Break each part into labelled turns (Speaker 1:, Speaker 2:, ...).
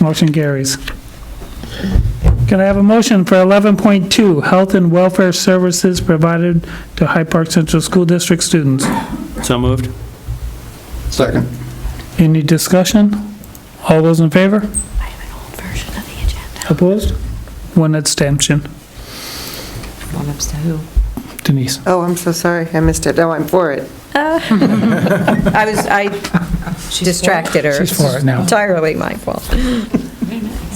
Speaker 1: Motion carries. Can I have a motion for 11.2, Health and Welfare Services Provided to Hyde Park Central School District Students?
Speaker 2: So moved.
Speaker 3: Second.
Speaker 1: Any discussion? All those in favor?
Speaker 4: I have an old version of the agenda.
Speaker 1: Opposed? One abstention.
Speaker 5: One ups to who?
Speaker 1: Denise?
Speaker 6: Oh, I'm so sorry, I missed it. Oh, I'm for it.
Speaker 5: I was, I distracted her.
Speaker 1: She's for it now.
Speaker 5: Entirely my fault.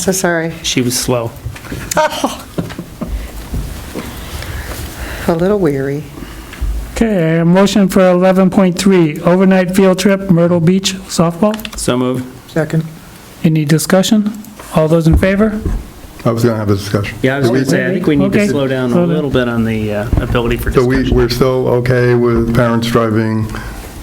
Speaker 6: So sorry.
Speaker 2: She was slow.
Speaker 6: A little weary.
Speaker 1: Okay, a motion for 11.3, Overnight Field Trip Myrtle Beach Softball?
Speaker 2: So moved.
Speaker 3: Second.
Speaker 1: Any discussion? All those in favor?
Speaker 3: I was going to have a discussion.
Speaker 2: Yeah, I was
Speaker 3: Do we-
Speaker 2: going to say, I think we need
Speaker 1: Okay.
Speaker 2: to slow down
Speaker 1: Slow
Speaker 2: a
Speaker 1: down.
Speaker 2: little bit on the uh, ability for
Speaker 3: So we,
Speaker 2: discussion.
Speaker 3: we're still okay with parents driving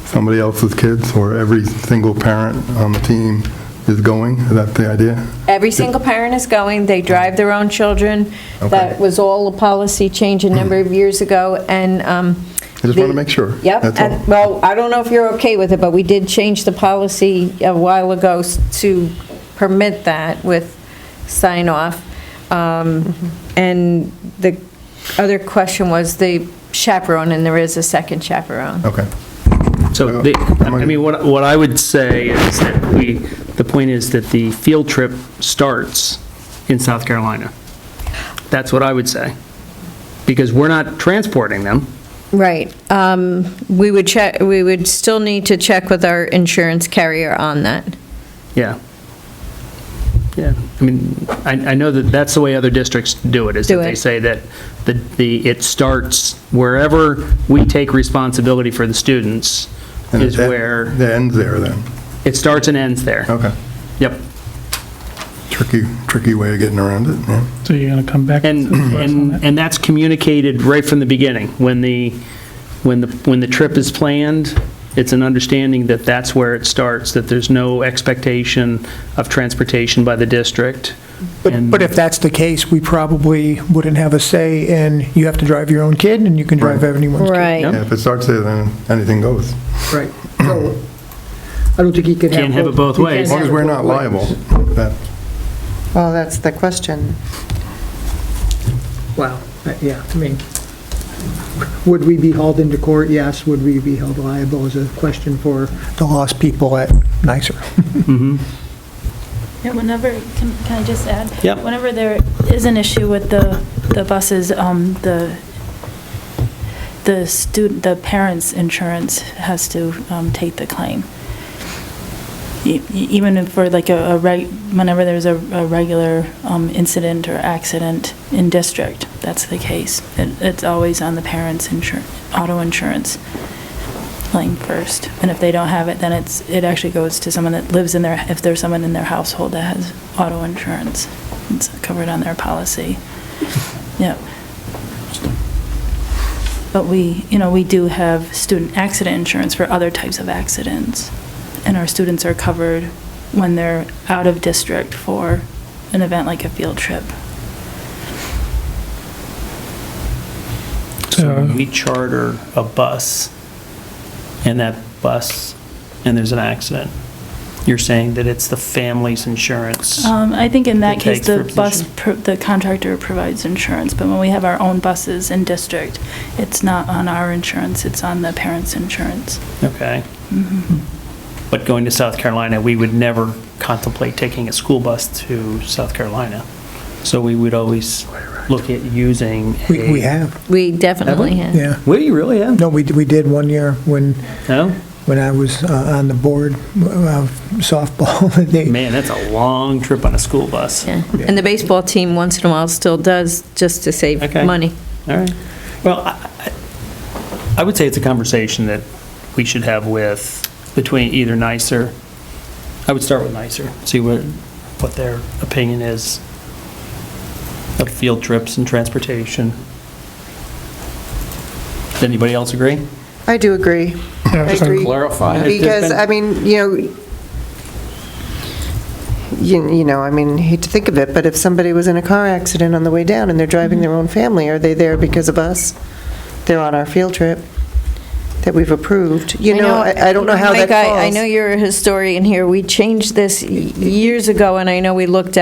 Speaker 3: somebody else's kids, or every single parent on the team is going? Is that the idea?
Speaker 7: Every single parent is going, they drive their own children.
Speaker 3: Okay.
Speaker 7: That was all a policy change a number of years ago, and... um,
Speaker 3: I just want to make sure.
Speaker 7: Yep,
Speaker 3: That's all.
Speaker 7: and, well, I don't know if you're okay with it, but we did change the policy a while ago s- to permit that with sign-off. And the other question was the chaperone, and there is a second chaperone.
Speaker 3: Okay. uh,
Speaker 2: So, the- I mean, what, what I would say is that we, the point is that the field trip starts in South Carolina. That's what I would say. Because we're not transporting them.
Speaker 7: Right. um, We would check, we would still need to check with our insurance carrier on that.
Speaker 2: Yeah. Yeah, I mean, I, I know that that's the way other districts do it, is that
Speaker 7: Do
Speaker 2: they
Speaker 7: it.
Speaker 2: say that the, the, it starts wherever we take responsibility for the students
Speaker 3: And
Speaker 2: is
Speaker 3: that-
Speaker 2: where,
Speaker 3: That ends there then.
Speaker 2: it starts and ends there.
Speaker 3: Okay.
Speaker 2: Yep.
Speaker 3: Tricky, tricky way of getting around it, yeah.
Speaker 1: So you're going to come back?
Speaker 2: And, and, and that's communicated right from the beginning. When the, when the, when the trip is planned, it's an understanding that that's where it starts, that there's no expectation of transportation by the district.
Speaker 8: But
Speaker 2: And-
Speaker 8: but if that's the case, we probably wouldn't have a say in, you have to drive your own kid, and you can drive anyone's kid.
Speaker 2: Yep.
Speaker 3: Yeah, If it starts there, then anything goes.
Speaker 9: Right. So, I don't think he can have.
Speaker 2: Can't have it both
Speaker 9: he
Speaker 2: ways.
Speaker 9: can't have
Speaker 3: As long as
Speaker 9: it
Speaker 3: we're
Speaker 9: both
Speaker 3: not
Speaker 9: ways.
Speaker 3: liable. That-
Speaker 6: Well, that's the question.
Speaker 9: Wow, Uh, yeah, I mean, would we be hauled into court? Yes. Would we be held liable is a question for,
Speaker 8: The lost people at nicer.
Speaker 10: Yeah, whenever, can, can I just add?
Speaker 2: Yeah.
Speaker 10: Whenever there is an issue with the, the buses, um, the, the student, the parents' insurance has to, um, take the claim. E- e- Even if for like a, a reg, whenever there's a, a regular, um, incident or accident in district, that's the case. It, it's always on the parents' insur, auto insurance claim first. And if they don't have it, then it's, it actually goes to someone that lives in their, if there's someone in their household that has auto insurance, it's covered on their policy. Yeah. But we, you know, we do have student accident insurance for other types of accidents. And our students are covered when they're out of district for an event like a field trip.
Speaker 2: So when we charter a bus, and that bus, and there's an accident, you're saying that it's the family's insurance?
Speaker 10: Um, I think in that
Speaker 2: It
Speaker 10: case,
Speaker 2: takes for
Speaker 10: the bus,
Speaker 2: position.
Speaker 10: pro- the contractor provides insurance, but when we have our own buses in district, it's not on our insurance, it's on the parents' insurance.
Speaker 2: Okay. But going to South Carolina, we would never contemplate taking a school bus to South Carolina. So we would always look at using
Speaker 8: We we
Speaker 2: a...
Speaker 8: have,
Speaker 7: We definitely have.
Speaker 8: yeah.
Speaker 2: We really have?
Speaker 8: No, we d- we did one year when,
Speaker 2: No?
Speaker 8: when I was uh, on the board of softball. They-
Speaker 2: Man, that's a long trip on a school bus.
Speaker 7: Yeah, and the baseball team once in a while still does, just to save
Speaker 2: Okay.
Speaker 7: money.
Speaker 2: All right. Well, I- I- I would say it's a conversation that we should have with, between either nicer. I would start with nicer. see what, what their opinion is of field trips and transportation. Does anybody else agree?
Speaker 6: I do agree. I agree.
Speaker 2: clarify.
Speaker 6: Because, I mean, you know, you, you know, I mean, hate to think of it, but if somebody was in a car accident on the way down and they're driving their own family, are they there because of us? They're on our field trip. that we've approved. You
Speaker 7: I
Speaker 6: know, I I don't know how that
Speaker 7: Mike,
Speaker 6: falls.
Speaker 7: I- I know you're a historian here. We changed this y- years ago, and I know we looked